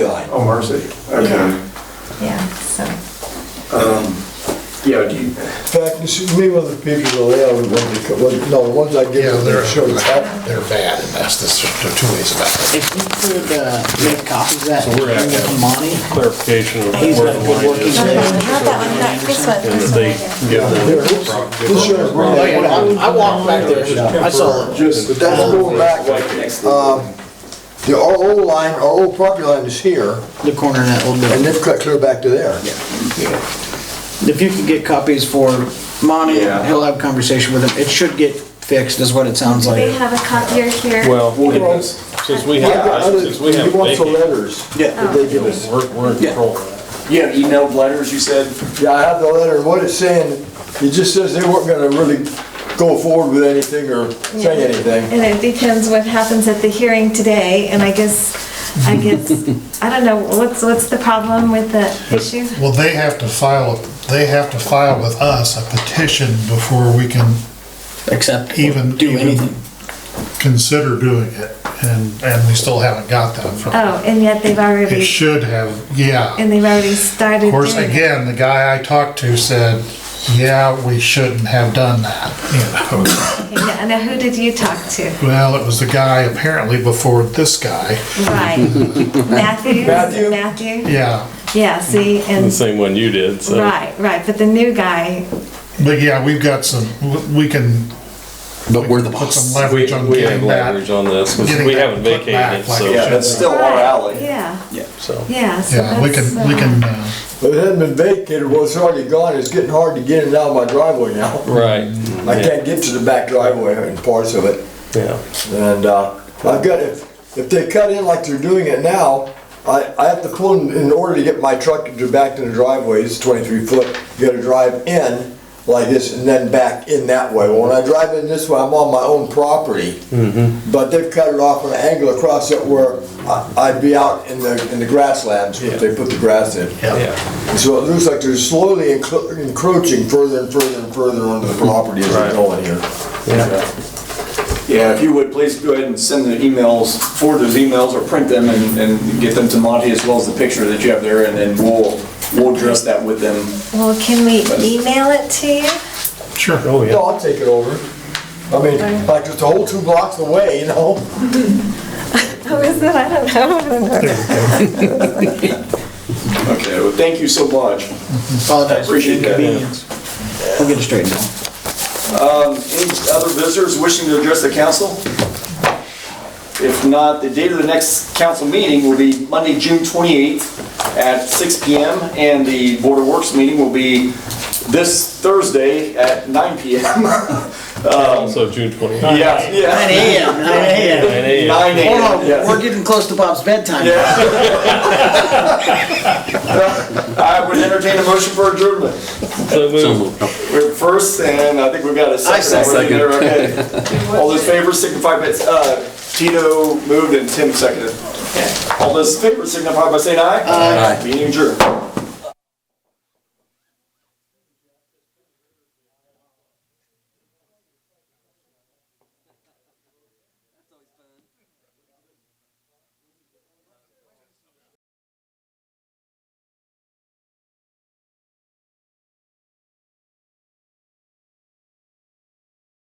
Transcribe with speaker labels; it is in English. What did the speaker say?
Speaker 1: Oh, mercy. Okay.
Speaker 2: Yeah, yeah, so,
Speaker 1: Um, Yeah, do you,
Speaker 3: In fact, you should meet with the people they are, when they come, when- no, the ones I give
Speaker 4: Yeah,
Speaker 3: you,
Speaker 4: they're,
Speaker 3: they're sure it's happening.
Speaker 4: they're bad, and that's, there's two ways about it.
Speaker 5: If you could uh, make copies of that
Speaker 6: So
Speaker 5: and
Speaker 6: we're gonna
Speaker 5: bring it
Speaker 6: have
Speaker 5: to
Speaker 6: to-
Speaker 5: Monty,
Speaker 6: clarification of
Speaker 5: He's
Speaker 6: where
Speaker 5: got a
Speaker 6: the
Speaker 5: good
Speaker 6: line
Speaker 5: working
Speaker 6: is.
Speaker 2: no, no,
Speaker 6: And
Speaker 2: not that one, not this one,
Speaker 6: that
Speaker 2: this
Speaker 6: they
Speaker 2: one
Speaker 6: give
Speaker 3: Here,
Speaker 6: them.
Speaker 3: this- this should have been-
Speaker 5: Oh, yeah, no, I I walked back there, I saw it.
Speaker 3: But that's going back, um, the O line, our old property line is here,
Speaker 5: The corner of that
Speaker 3: and
Speaker 5: old building.
Speaker 3: they've cut clear back to there.
Speaker 5: If you could get copies for Monty,
Speaker 1: Yeah.
Speaker 5: he'll have a conversation with him. It should get fixed, is what it
Speaker 2: there.
Speaker 5: sounds
Speaker 2: Do they
Speaker 5: like.
Speaker 2: have a copier here?
Speaker 6: Well,
Speaker 1: we'll get this.
Speaker 6: since we
Speaker 3: I got
Speaker 6: have,
Speaker 3: other-
Speaker 6: since we
Speaker 3: He
Speaker 6: have
Speaker 3: wants the
Speaker 6: vacant,
Speaker 3: letters
Speaker 5: Yeah.
Speaker 3: that they give us.
Speaker 6: we're, we're in
Speaker 5: Yeah.
Speaker 6: control of
Speaker 1: You have emailed letters, you said?
Speaker 3: Yeah, I have the letter, and what it's saying, it just says they weren't gonna really go forward with anything or say anything.
Speaker 2: And it depends what happens at the hearing today, and I guess, I guess, I don't know, what's, what's the problem with the issue?
Speaker 4: Well, they have to file, they have to file with us a petition before we can
Speaker 5: Except,
Speaker 4: Even-
Speaker 5: do
Speaker 4: even-
Speaker 5: anything.
Speaker 4: consider doing it, and, and we still haven't got that from them.
Speaker 2: Oh, and yet they've
Speaker 4: It
Speaker 2: already,
Speaker 4: should have, yeah.
Speaker 2: and they've already started
Speaker 4: Of course,
Speaker 2: doing it.
Speaker 4: again, the guy I talked to said, yeah, we shouldn't have done that, you know.
Speaker 2: Okay, now- Now, who did you talk to?
Speaker 4: Well, it was the guy apparently before this guy,
Speaker 2: Right. Matthew?
Speaker 3: Matthew?
Speaker 2: Matthew?
Speaker 4: yeah.
Speaker 2: Yeah, see,
Speaker 6: it. The
Speaker 2: and,
Speaker 6: same one you did,
Speaker 4: uh,
Speaker 6: so.
Speaker 2: right, right, but the new guy,
Speaker 4: But yeah, we've got some, we can. But we're the Put some
Speaker 6: We,
Speaker 4: leverage on
Speaker 6: we have
Speaker 4: getting
Speaker 6: leverage
Speaker 4: that.
Speaker 6: on this, 'cause
Speaker 4: getting
Speaker 6: we
Speaker 4: that
Speaker 6: haven't
Speaker 4: put
Speaker 6: vacated
Speaker 4: back
Speaker 6: it,
Speaker 4: like
Speaker 6: so.
Speaker 4: it
Speaker 1: Yeah, that's still our alley.
Speaker 2: yeah,
Speaker 6: So,
Speaker 2: yeah, so
Speaker 4: Yeah, we can,
Speaker 2: that's,
Speaker 4: we
Speaker 2: uh,
Speaker 4: can, uh,
Speaker 3: But it hadn't been vacated, well, it's already gone, it's getting hard to get it out of my driveway now.
Speaker 6: right,
Speaker 3: I can't get to the back driveway and parts of it.
Speaker 6: yeah.
Speaker 3: And uh, I've got, if, if they cut in like they're doing it now, I, I have to pull in, in order to get my truck to back to the driveway, it's twenty-three foot, you gotta drive in like this and then back in that way. Well, When I drive in this way, I'm on my own property. But they've cut it off at an angle across it where I, I'd be out in the, in the grasslands if they put the grass in.
Speaker 6: Yeah,
Speaker 3: So it looks like they're slowly encro- encroaching further and further and further onto the property as they're
Speaker 6: Right.
Speaker 3: going here.
Speaker 1: Yeah, if you would, please go ahead and send the emails, forward those emails or print them and, and get them to Monty as well as the picture that you have there, and then we'll, we'll address that with them.
Speaker 2: Well, can we email it to you?
Speaker 4: sure.
Speaker 6: oh, yeah.
Speaker 3: No, I'll take it over. I mean, like, it's a whole two blocks away, you know?
Speaker 2: Who is it? I don't know. I don't know.
Speaker 1: Okay, well, thank you so much.
Speaker 5: Apologize for the
Speaker 1: Appreciate that.
Speaker 5: inconvenience. We'll get it straightened out.
Speaker 1: Any other visitors wishing to address the council? If not, the date of the next council meeting will be Monday, June 28th at 6 PM, and the Board of Works meeting will be this Thursday at 9 PM.
Speaker 6: Also June 29th.
Speaker 1: Yeah, yeah.
Speaker 5: 9 AM, 9 AM.
Speaker 6: 9 a.m.
Speaker 1: 9 AM,
Speaker 5: Whoa,
Speaker 1: yes.
Speaker 5: we're getting close to Bob's bedtime.
Speaker 1: I would entertain a motion for adjournment.
Speaker 6: So move.
Speaker 1: We're first, and I think we've got a second.
Speaker 5: second.
Speaker 1: We're there, okay. All those favors signify by, uh, Tito moved and Tim seconded. All those favors signify by saying aye. Aye. Meeting adjourned.